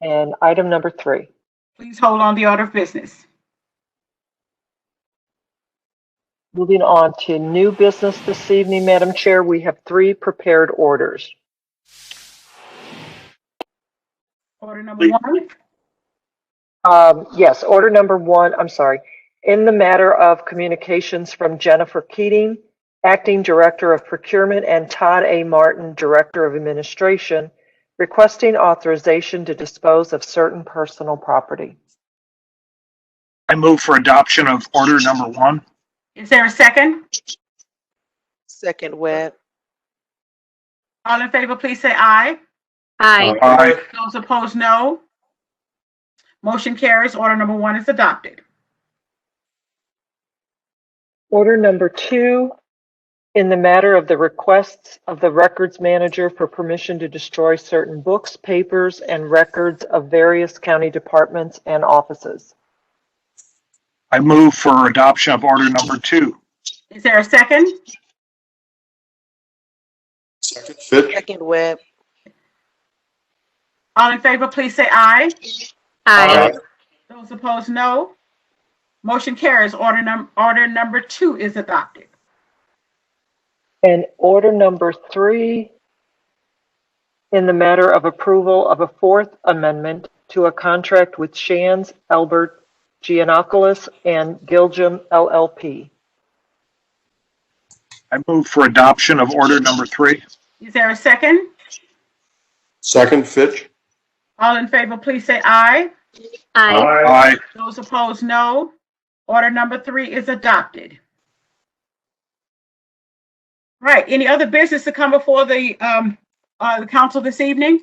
And item number three. Please hold on the order of business. Moving on to new business this evening, Madam Chair, we have three prepared orders. Order number one, Um, Yes, order number one, I'm sorry. In the matter of communications from Jennifer Keating, Acting Director of Procurement, and Todd A. Martin, Director of Administration, requesting authorization to dispose of certain personal property. I move for adoption of order number one. is there a second? Second web. All in favor, please say aye. Aye. Aye. Those opposed, no. Motion carries. Order number one is adopted. Order number two, in the matter of the requests of the records manager for permission to destroy certain books, papers, and records of various county departments and offices. I move for adoption of order number two. Is there a second? Fitch, Second web. All in favor, please say aye. Aye. Those opposed, no. Motion carries. Order num, order number two is adopted. And order number three, in the matter of approval of a fourth amendment to a contract with Shands, Albert, Giannakoulis, and Giljam LLP. I move for adoption of order number three. Is there a second? second Fitch. All in favor, please say aye. Aye. Aye. Those opposed, no. Order number three is adopted. Right, any other business to come before the, um, uh, the council this evening?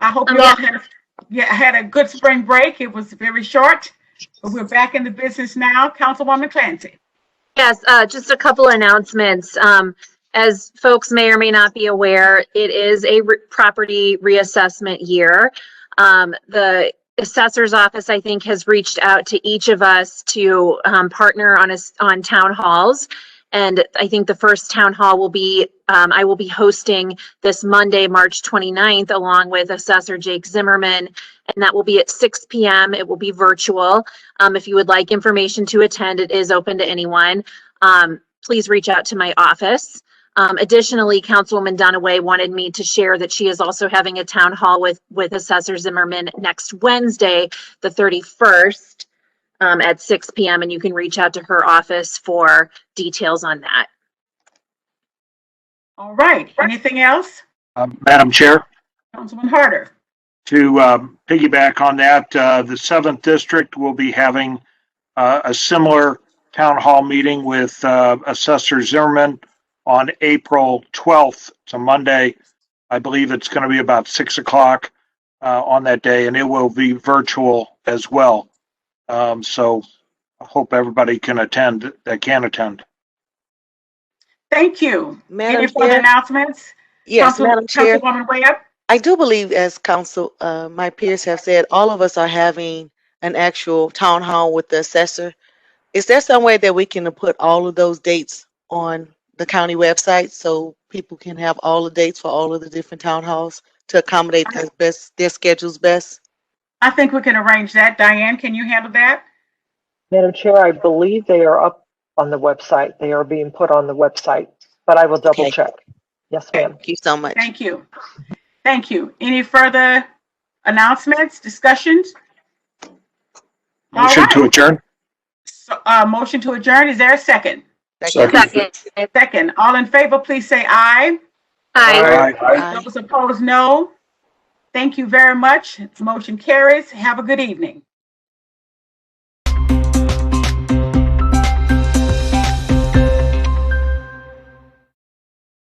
I hope you all had, a- yeah, had a good spring break. It was very short, but we're back in the business now. Councilwoman Clancy. Yes, uh, just a couple announcements. Um, as folks may or may not be aware, it is a re- property reassessment year. Um, the assessor's office, I think, has reached out to each of us to, um, partner on us, on town halls. And I think the first town hall will be, um, I will be hosting this Monday, March 29th, along with Assessor Jake Zimmerman. And that will be at six PM. It will be virtual. Um, if you would like information to attend, it is open to anyone. Um, please reach out to my office. Um, additionally, Councilwoman Dunaway wanted me to share that she is also having a town hall with, with Assessor Zimmerman next Wednesday, the 31st, um, at 6 PM, and you can reach out to her office for details on that. All right, anything else? Um, Madam Chair, Councilman Harder. to um, piggyback on that, uh, the seventh district will be having uh, a similar town hall meeting with uh, Assessor Zimmerman on April twelfth. It's a Monday. I believe it's going to be about six o'clock uh, on that day, and it will be virtual as well. Um, so I hope everybody can attend that can attend. Thank you. Any Madam further Chair, announcements? yes, Council- Madam Chair, Councilwoman Webb? I do believe, as council, uh, my peers have said, all of us are having an actual town hall with the assessor. Is there some way that we can put all of those dates on the county website so people can have all the dates for all of the different town halls to accommodate their best, their schedules best? I think we can arrange that. Diane, can you handle that? Madam Chair, I believe they are up on the website. They are being put on the website, but I will double Okay. check. Yes, ma'am. Thank you so much. Thank you. Thank you. Any further announcements, discussions? All Motion to right. adjourn. So, uh, motion to adjourn. Is there a second? Second. Second. Second. All in favor, please say aye. Aye. Aye. Those opposed, no. Thank you very much. Motion carries. Have a good evening.